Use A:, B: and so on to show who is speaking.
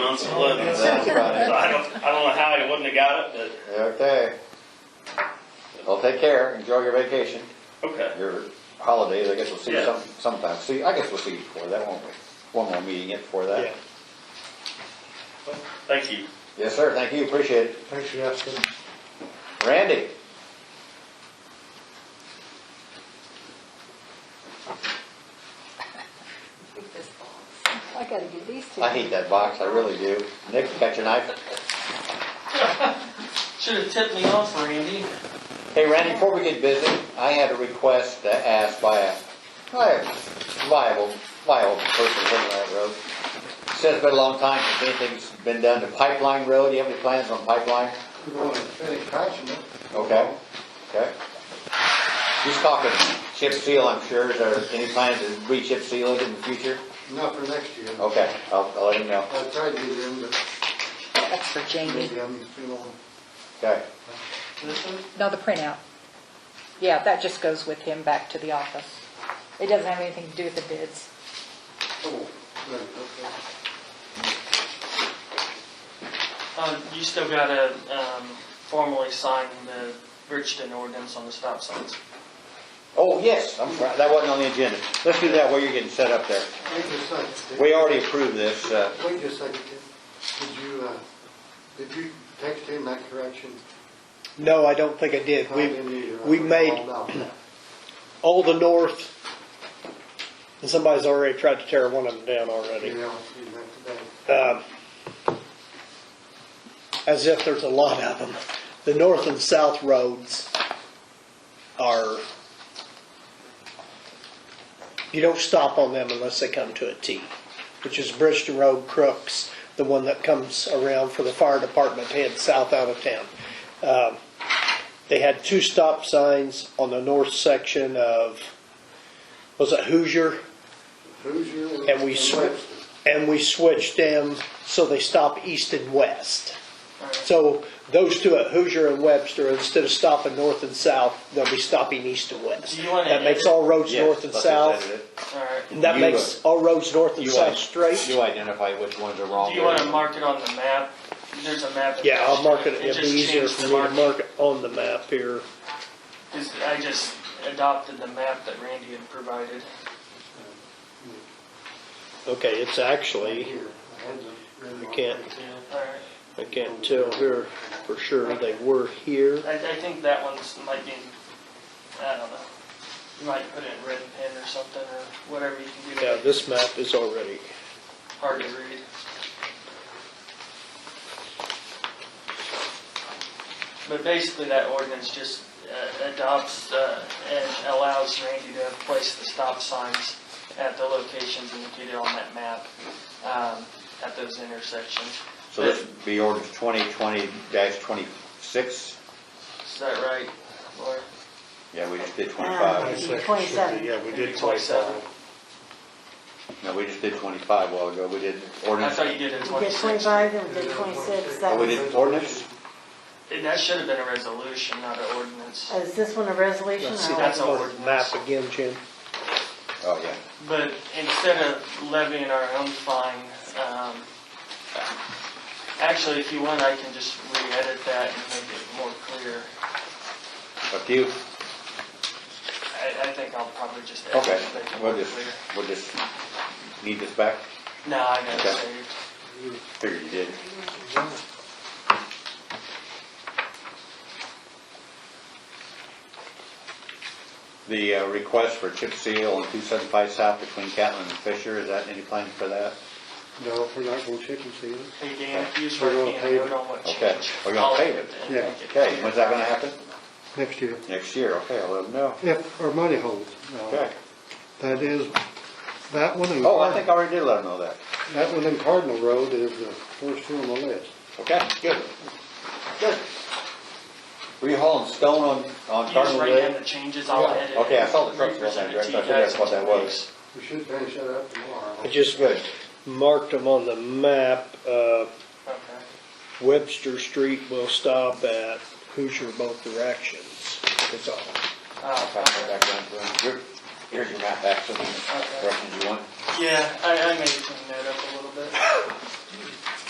A: on some loads. So
B: Sounds about it.
A: I don't, I don't know how he wouldn't have got it,
B: Okay. Well, take care, enjoy your vacation,
A: but, okay.
B: your holidays, I guess we'll see you some,
A: Yeah.
B: sometime, see, I guess we'll see you before that, won't we? One more meeting yet before that.
C: Yeah.
A: Thank you.
B: Yes, sir, thank you, appreciate it.
C: Thanks for asking.
B: Randy?
D: I gotta get these two.
B: I hate that box, I really do. Nick, catch a knife.
E: Should have tipped me off, Randy.
B: Hey, Randy, before we get busy, I had a request uh, asked by a, by a viable, viable person living on that road. Says it's been a long time since anything's been done to Pipeline Road, you have any plans on Pipeline?
C: We're going to finish patching it.
B: Okay, okay. He's talking chip seal, I'm sure, is there any plans to re-chip seal it in the future?
C: Not for next year.
F: Oh.
B: Okay, I'll, I'll let him know,
C: I tried to get in, but
D: That's for Jamie.
C: maybe I'm too long.
B: okay.
E: This one?
D: No, the printout. Yeah, that just goes with him back to the office. It doesn't have anything to do with the bids.
C: Oh, right, okay.
E: Um, you still gotta, um, formally sign the Bridgeton ordinance on the stop signs.
B: Oh, yes, I'm sorry, that wasn't on the agenda. Let's do that while you're getting set up there.
C: Wait just a second.
B: We already approved this, uh,
C: Wait just a second, Tim. Did you, uh, did you text him that correction?
F: No, I don't think I did.
C: I
F: We,
C: didn't either. I
F: we
C: was
F: made-
C: all about that.
F: all the north, and somebody's already tried to tear one of them down
C: Yeah,
F: already.
C: I'll see you next day.
F: Um, As if there's a lot of them. The north and south roads are, you don't stop on them unless they come to a T, which is Bridgeton Road, Crooks, the one that comes around for the fire department to head south out of town. Um, They had two stop signs on the north section of, was it Hoosier?
C: Hoosier
F: And
C: and
F: we sw-
C: Webster.
F: and we switched them so they stop east and west.
E: Alright.
F: So those two at Hoosier and Webster, instead of stopping north and south, they'll be stopping east and west.
E: Do you wanna
F: That makes
E: edit-
F: all roads
B: yes.
F: north and
B: let's just edit
F: south,
B: it.
E: Alright.
F: and that
B: You, uh,
F: makes all roads north and
B: You
F: south
B: want-
F: straight.
B: You identify which ones are wrong.
E: Do you wanna mark it on the map? There's a map.
F: Yeah, I'll mark it,
E: It
F: it'd be
E: just
F: easier
E: changed
F: for
E: the
F: me to
E: mark,
F: mark it on the map here.
E: cause I just adopted the map that Randy had provided.
F: Okay, it's actually,
C: Here, I had them written
F: You
C: on
F: can't-
C: paper.
E: Alright.
F: I can't tell here for sure, they were here.
E: I, I think that one's might be, I don't know. You might put it in red pen or something, or whatever you can do. to
F: Yeah,
E: make it
F: this map is already,
E: Hard to read. But basically, that ordinance just uh, adopts uh, and allows Randy to place the stop signs at the locations indicated on that map, um, at those intersections.
B: So this would be ordinance twenty twenty twenty-six?
E: Is that right, Laura?
B: Yeah, we just did
G: Um,
B: twenty-five.
D: Twenty-seven.
C: Yeah, we
E: did 27.
F: Ah.
B: No, we just did twenty-five a while ago. We did
E: I
B: ordinance.
E: thought you did it
G: We did
E: 26.
G: twenty-five, then we did twenty-six, that uh,
B: Oh, we
G: was,
B: did ordinance?
E: And That should have been a resolution, not an ordinance.
G: is this one a resolution?
F: let's see,
G: or-
E: That's
F: that's
E: a
F: our
E: ordinance.
F: map again, Jim.
B: Oh, yeah.
E: But instead of levying our own fine, um, actually, if you want, I can just re-edit that and make it more clear.
B: Up to you.
E: I, I think I'll probably just edit
B: Okay,
E: it, make it more
B: we'll just,
E: clear.
B: we'll just need this back.
E: No, I got it
B: Okay.
E: saved.
B: Figured you did. The uh, request for chip seal on 275 South between Catlin and Fisher, is that any plans for that?
C: No, we're not going to chicken seal it.
E: Hey, Dan, if you just
C: We're
E: write
C: gonna
E: me a
C: pave
E: note
C: it.
E: on what
B: Okay,
E: changed.
B: we're gonna
E: I'll
B: pave
E: edit
B: it.
E: and
C: Yeah.
E: make it
B: Okay,
E: clear.
B: when's that gonna happen?
C: next year.
B: Next year, okay, I'll let them know.
C: If our money holds. Now,
B: Okay.
C: That is, that one and,
B: Oh, I think
C: Card-
B: I already did let them know that.
C: that one and Cardinal Road is the first two on the list.
B: Okay, good. Good. Were you hauling stone on, on
E: You just
B: Cardinal
E: write down
B: Way?
E: the changes, I'll
C: Yeah.
E: edit. it
B: Okay, I saw the
E: and
B: trucks going that
E: represent it to
B: direction, I
E: you
B: figured
E: guys
B: that's what
E: in
B: that
E: two
B: was.
E: weeks.
C: We should finish that up tomorrow.
F: I just
B: Good.
F: marked them on the map, uh,
E: Okay.
F: Webster Street will stop at Hoosier both directions. That's all.
E: Uh,
B: Here- Here's your map, actually, directions you want.
E: Yeah, I, I made a note up a little bit.